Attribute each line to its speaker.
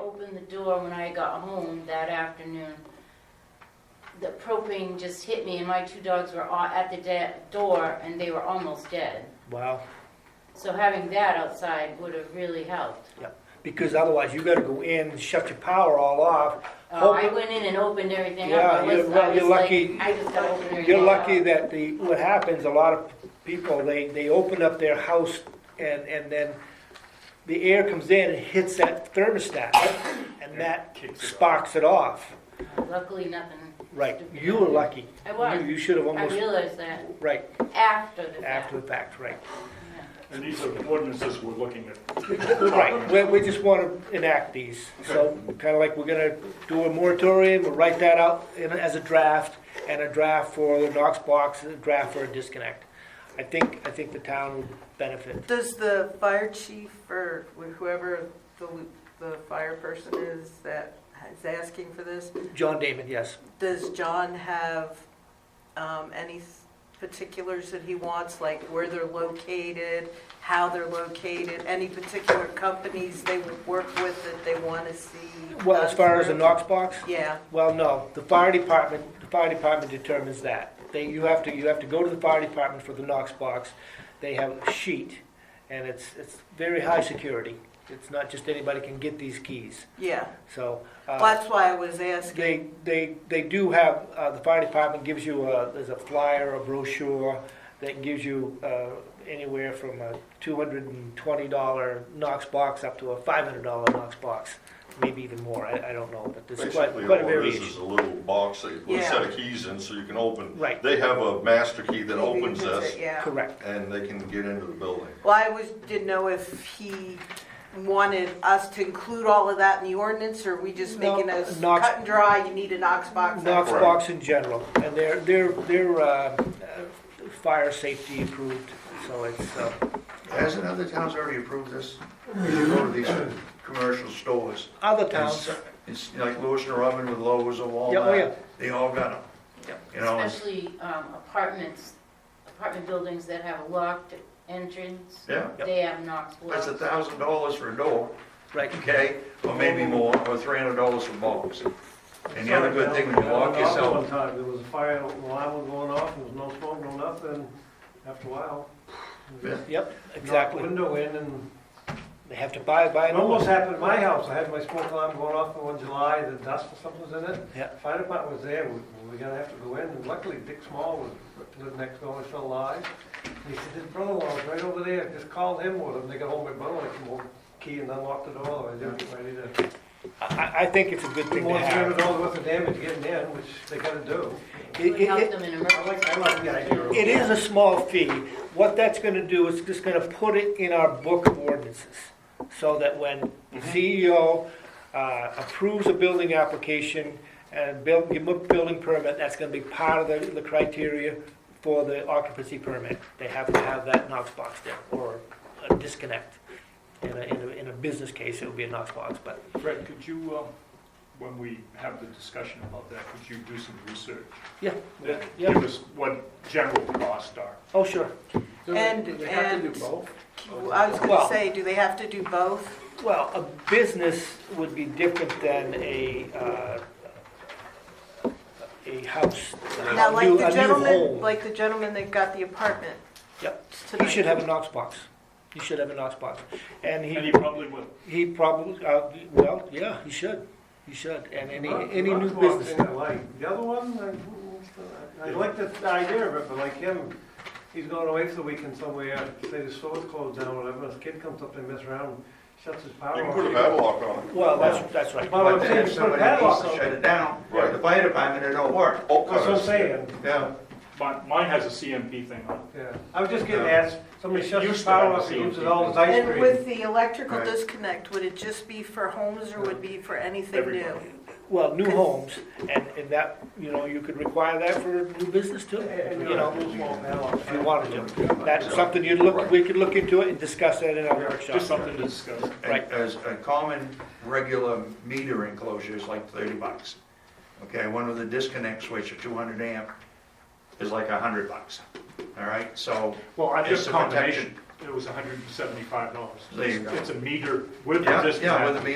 Speaker 1: opened the door when I got home that afternoon, the propane just hit me and my two dogs were all at the de- door and they were almost dead.
Speaker 2: Wow.
Speaker 1: So having that outside would have really helped.
Speaker 2: Because otherwise, you gotta go in, shut your power all off.
Speaker 1: Uh, I
Speaker 2: Hope-
Speaker 1: went in and opened everything
Speaker 2: Oh. Yeah,
Speaker 1: up. I was-
Speaker 2: you're- well,
Speaker 1: I
Speaker 2: you're
Speaker 1: was like,
Speaker 2: lucky-
Speaker 1: I just gotta open everything
Speaker 2: You're
Speaker 1: up.
Speaker 2: lucky that the, what happens, a lot of people, they, they open up their house and, and then the air comes in and hits that thermostat and that
Speaker 3: Kicks it off.
Speaker 2: sparks it off.
Speaker 1: Luckily, nothing.
Speaker 2: Right, you were lucky.
Speaker 1: I was.
Speaker 2: You- You should have
Speaker 1: I
Speaker 2: almost,
Speaker 1: realized that
Speaker 2: right,
Speaker 1: after the fact.
Speaker 2: after the fact, right.
Speaker 3: And these are ordinances we're looking at.
Speaker 2: Right, we, we just wanna enact these, so, kinda like we're gonna do a moratorium, we'll write that out in, as a draft, and a draft for the Knox box, and a draft for a disconnect. I think, I think the town would benefit.
Speaker 4: Does the fire chief or whoever the, the fire person is that is asking for this,
Speaker 2: John Damon, yes.
Speaker 4: does John have um, any particulars that he wants, like where they're located, how they're located, any particular companies they would work with that they want to see?
Speaker 2: Well, as far as the
Speaker 4: done
Speaker 2: Knox box,
Speaker 4: through? Yeah,
Speaker 2: well, no, the fire department, the fire department determines that. They, you have to, you have to go to the fire department for the Knox box. They have a sheet, and it's, it's very high security. It's not just anybody can get these keys,
Speaker 4: yeah.
Speaker 2: so. uh,
Speaker 4: Well, that's why I was asking.
Speaker 2: They, they, they do have, uh, the fire department gives you a, there's a flyer, a brochure that gives you, uh, anywhere from a two hundred and twenty dollar Knox box up to a five hundred dollar Knox box, maybe even more, I, I don't know, but there's quite,
Speaker 5: Basically,
Speaker 2: quite a
Speaker 5: all it is is
Speaker 2: variation.
Speaker 5: a little box that you put a
Speaker 4: Yeah.
Speaker 5: set of keys in so you can open.
Speaker 2: Right.
Speaker 5: They have a master key that
Speaker 4: Maybe
Speaker 5: opens
Speaker 4: that's
Speaker 5: this
Speaker 4: it, Yeah.
Speaker 2: Correct.
Speaker 5: and they can get into the building.
Speaker 4: Well, I was, didn't know if he wanted us to include all of that in the ordinance, or we just
Speaker 2: No,
Speaker 4: making us
Speaker 2: Knox-
Speaker 4: cut and dry, you need a Knox box.
Speaker 2: Knox
Speaker 5: Correct.
Speaker 2: box in general, and they're, they're, they're, uh, uh, fire safety approved, so it's, uh,
Speaker 6: Hasn't other towns already approved this? You go to these commercial stores.
Speaker 2: other towns,
Speaker 6: and It's it's like Lewis and Robin with Lowe's and
Speaker 2: Yeah, oh, yeah.
Speaker 6: Walmart. They all got them.
Speaker 2: Yep.
Speaker 6: You know, it's-
Speaker 1: Especially um, apartments, apartment buildings that have a locked entrance,
Speaker 6: yeah,
Speaker 1: they have Knox locks.
Speaker 6: that's a thousand dollars for a door,
Speaker 2: right,
Speaker 6: okay? Or maybe more, or three hundred dollars for box. And the other good thing, when you lock
Speaker 7: One
Speaker 6: yourself,
Speaker 7: time, there was a fire alarm was going off, and there was no smoke, no nothing, after a while.
Speaker 6: Yeah,
Speaker 2: yep,
Speaker 7: knocked the
Speaker 2: exactly.
Speaker 7: Window in, and
Speaker 2: They have to buy, buy
Speaker 7: it
Speaker 2: an
Speaker 7: almost happened at my house, I had my smoke alarm going off in one July, the dust or something was in it.
Speaker 2: Yeah.
Speaker 7: Fire department was there, we we were gonna have to go in, and luckily Dick Small was, lived next door, he's still alive. He said, his brother-in-law's right over there, just called him with him, they got hold of my brother-in-law, came over, key and unlocked the door, I didn't get ready to.
Speaker 2: I, I think it's a good thing to
Speaker 7: More than
Speaker 2: have.
Speaker 7: $300 worth of damage getting in, which they gotta do.
Speaker 2: It-
Speaker 1: Would
Speaker 2: it-
Speaker 1: help
Speaker 2: it-
Speaker 1: them in
Speaker 7: I like, I
Speaker 1: emergency.
Speaker 7: like the idea of.
Speaker 2: It is a small fee. What that's gonna do is just gonna put it in our book of ordinances, so that when CEO uh, approves a building application and build, give a building permit, that's gonna be part of the, the criteria for the occupancy permit. They have to have that Knox box there, or a disconnect. In a, in a, in a business case, it would be a Knox box, but
Speaker 3: Fred, could you, um, when we have the discussion about that, could you do some research?
Speaker 2: Yeah.
Speaker 3: That-
Speaker 2: Yeah.
Speaker 3: Give us what general costs are.
Speaker 2: Oh, sure.
Speaker 4: And, and, I
Speaker 2: Well-
Speaker 4: was gonna say, do they have to do both?
Speaker 2: Well, a business would be different than a, uh, a house,
Speaker 4: Now,
Speaker 2: a
Speaker 4: like
Speaker 2: new,
Speaker 4: the
Speaker 2: a new
Speaker 4: gentleman,
Speaker 2: home.
Speaker 4: like the gentleman that got the apartment.
Speaker 2: Yep.
Speaker 4: tonight.
Speaker 2: You should have a Knox box. You should have a Knox box. And
Speaker 3: And he
Speaker 2: he,
Speaker 3: probably would.
Speaker 2: he probably, uh, well, yeah, he should. He should. And any,
Speaker 7: Not-
Speaker 2: any
Speaker 7: not
Speaker 2: new
Speaker 7: the
Speaker 2: business.
Speaker 7: thing I like. The other one, I, I like the idea of it, but like him, he's going away for the weekend somewhere, say the store's closed down or whatever, his kid comes up, they mess around, shuts his power off.
Speaker 5: You can put a padlock on it.
Speaker 2: Well, that's, that's right.
Speaker 7: Well,
Speaker 6: but
Speaker 7: I'm
Speaker 6: they
Speaker 7: saying,
Speaker 6: have
Speaker 7: put a
Speaker 6: somebody
Speaker 7: padlock
Speaker 6: needs
Speaker 7: on
Speaker 6: to shut it
Speaker 7: it.
Speaker 6: down.
Speaker 5: Right.
Speaker 6: The fire department, it don't work.
Speaker 5: All
Speaker 7: That's what I'm
Speaker 5: kinds.
Speaker 7: saying,
Speaker 6: Yeah,
Speaker 3: Mi- Mine has a CMP thing on
Speaker 7: yeah. I was just getting asked, somebody shuts his
Speaker 3: Used to have
Speaker 7: power off, he
Speaker 3: seen
Speaker 7: uses all his ice
Speaker 4: And
Speaker 7: cream.
Speaker 4: with the electrical
Speaker 6: Right.
Speaker 4: disconnect, would it just be for homes or would it be for anything new?
Speaker 3: Everybody.
Speaker 2: Well, new homes, and, and that, you know, you could require that for new business too,
Speaker 7: And,
Speaker 2: you know,
Speaker 7: little small padlock.
Speaker 2: if you wanted to. That's something you'd look, we could look into it and discuss that in our
Speaker 3: it.
Speaker 2: workshop.
Speaker 3: Just something to discuss.
Speaker 6: And
Speaker 2: Right.
Speaker 6: as a common, regular meter enclosure is like thirty bucks. Okay, one with a disconnect switch, a two hundred amp, is like a hundred bucks, all right? So,
Speaker 3: Well, I
Speaker 6: It's
Speaker 3: just
Speaker 6: a
Speaker 3: combination, it was hundred and seventy-five dollars.
Speaker 6: There you go.
Speaker 3: It's a meter with a
Speaker 6: yeah,
Speaker 3: disconnect.
Speaker 6: yeah, with a meter